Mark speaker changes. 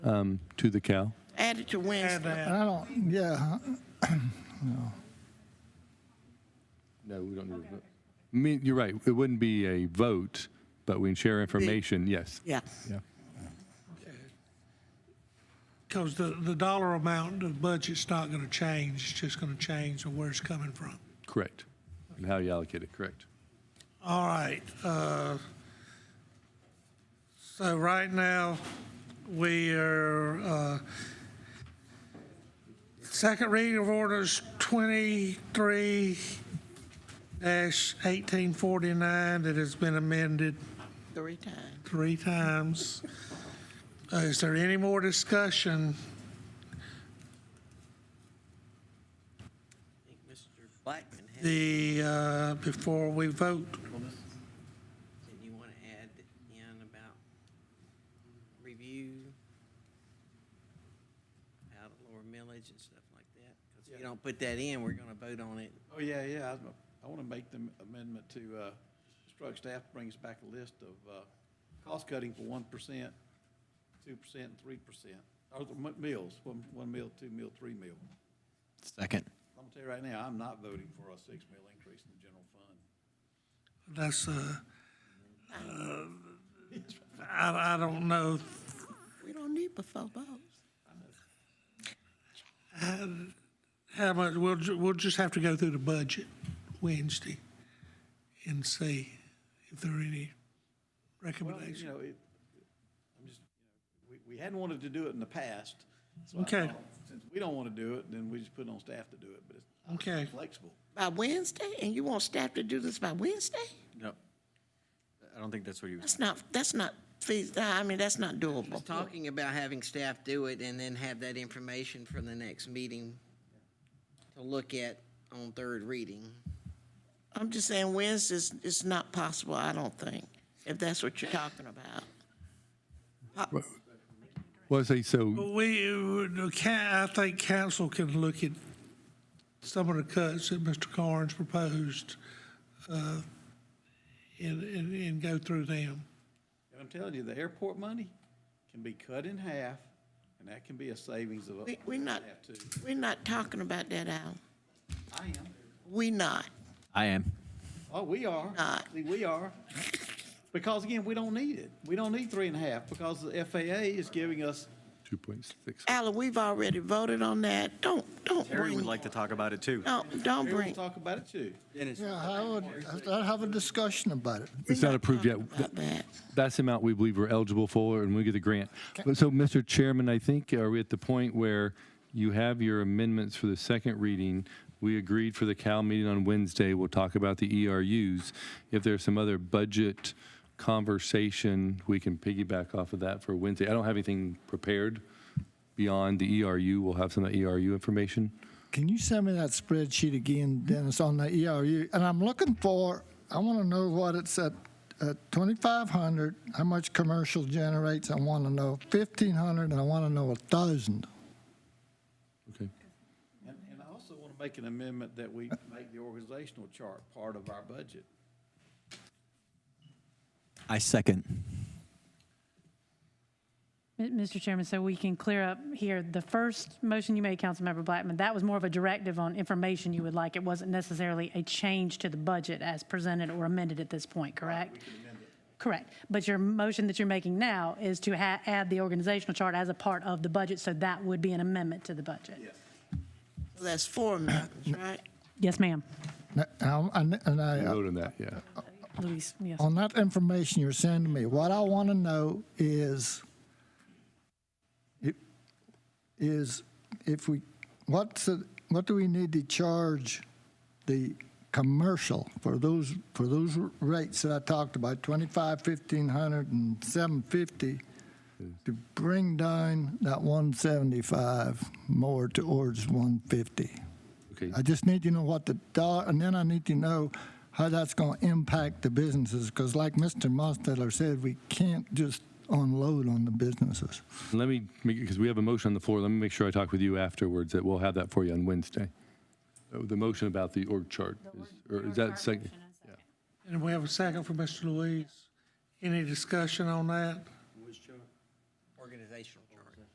Speaker 1: um, to the cow?
Speaker 2: Add it to Wednesday.
Speaker 3: And I don't, yeah,
Speaker 1: No, we don't need a vote. I mean, you're right, it wouldn't be a vote, but we can share information, yes.
Speaker 2: Yeah.
Speaker 1: Yeah.
Speaker 4: Because the, the dollar amount, the budget's not going to change, it's just going to change of where it's coming from.
Speaker 1: Correct. And how you allocate it, correct.
Speaker 4: All right. uh, So right now, we are, uh, second reading of orders 23 1849 that has been amended
Speaker 2: Three times.
Speaker 4: three times. Uh, Is there any more discussion?
Speaker 2: I think Mr. Blackman had,
Speaker 4: the, uh, before we vote.
Speaker 2: said you want to add in about review out of lower millage and stuff like that. Because if you don't put that in, we're going to vote on it.
Speaker 5: Oh, yeah, yeah, I, I want to make the amendment to, uh, instruct staff to bring us back a list of, uh, cost cutting for one percent, two percent, and three percent. Or the mi- meals, one, one meal, two meal, three meal.
Speaker 6: Second.
Speaker 5: I'm gonna tell you right now, I'm not voting for a six meal increase in the general fund.
Speaker 4: That's, uh, uh, I, I don't know.
Speaker 2: We don't need but four votes.
Speaker 4: How much, we'll, ju- we'll just have to go through the budget Wednesday and see if there are any
Speaker 5: Well, you
Speaker 4: recommendations.
Speaker 5: know, it, I'm just, you know, we, we hadn't wanted to do it in the past. so I
Speaker 4: Okay.
Speaker 5: thought, Since we don't want to do it, then we just put it on staff to do it, but it's
Speaker 4: Okay,
Speaker 5: flexible.
Speaker 2: By Wednesday? And you want staff to do this by Wednesday?
Speaker 6: No. I don't think that's what he was.
Speaker 2: That's not, that's not feas, I mean, that's not doable.
Speaker 7: talking about having staff do it and then have that information for the next meeting to look at on third reading.
Speaker 2: I'm just saying Wednesday's, it's not possible, I don't think, if that's what you're talking about.
Speaker 1: Well, I say, so,
Speaker 4: we, uh, ca- I think council can look at some of the cuts that Mr. Carnes proposed, uh, and, and, and go through them.
Speaker 5: And I'm telling you, the airport money can be cut in half, and that can be a savings of.
Speaker 2: We, we're not,
Speaker 5: Have to.
Speaker 2: we're not talking about that, Al.
Speaker 5: I am.
Speaker 2: We not.
Speaker 6: I am.
Speaker 5: Oh, we are.
Speaker 2: Not.
Speaker 5: See, We are. Because again, we don't need it. We don't need three and a half because the FAA is giving us,
Speaker 1: 2.6.
Speaker 2: Alan, we've already voted on that. Don't, don't
Speaker 6: Terry would
Speaker 2: bring,
Speaker 6: like to talk about it too.
Speaker 2: don't, don't
Speaker 5: we will
Speaker 2: bring.
Speaker 5: talk about it too.
Speaker 3: yeah, I would, I'd have a discussion about it.
Speaker 1: It's not approved yet.
Speaker 2: About that.
Speaker 1: That's the amount we believe we're eligible for, and we get the grant. But so, Mr. Chairman, I think, are we at the point where you have your amendments for the second reading? We agreed for the Cal meeting on Wednesday, we'll talk about the ERUs. If there's some other budget conversation, we can piggyback off of that for Wednesday. I don't have anything prepared beyond the ERU. We'll have some of the ERU information.
Speaker 3: Can you send me that spreadsheet again, Dennis, on the ERU? And I'm looking for, I want to know what it's at, at 2,500, how much commercial generates, I want to know 1,500, and I want to know 1,000.
Speaker 1: Okay.
Speaker 5: And, and I also want to make an amendment that we make the organizational chart part of our budget.
Speaker 6: I second.
Speaker 8: M- Mr. Chairman, so we can clear up here, the first motion you made, Councilmember Blackman, that was more of a directive on information you would like. It wasn't necessarily a change to the budget as presented or amended at this point, correct? Correct. But your motion that you're making now is to ha- add the organizational chart as a part of the budget, so that would be an amendment to the budget.
Speaker 2: So That's four amendments, right?
Speaker 8: Yes, ma'am.
Speaker 3: Now, And and I,
Speaker 1: Vote on that, yeah.
Speaker 8: Louise, yes.
Speaker 3: on that information you're sending me, what I want to know is, it- is if we, what's, the- what do we need to charge the commercial for those, for those rates that I talked about, 25, 1500 and 750, to bring down that 175 more towards 150?
Speaker 1: Okay.
Speaker 3: I just need to know what the dollar, and then I need to know how that's going to impact the businesses, because like Mr. Mosteller said, we can't just unload on the businesses.
Speaker 1: Let me, because we have a motion on the floor, let me make sure I talk with you afterwards, that we'll have that for you on Wednesday. Uh, The motion about the org chart, is- or is that second?
Speaker 4: And we have a second for Mr. Louise. Any discussion on that?
Speaker 7: Organizational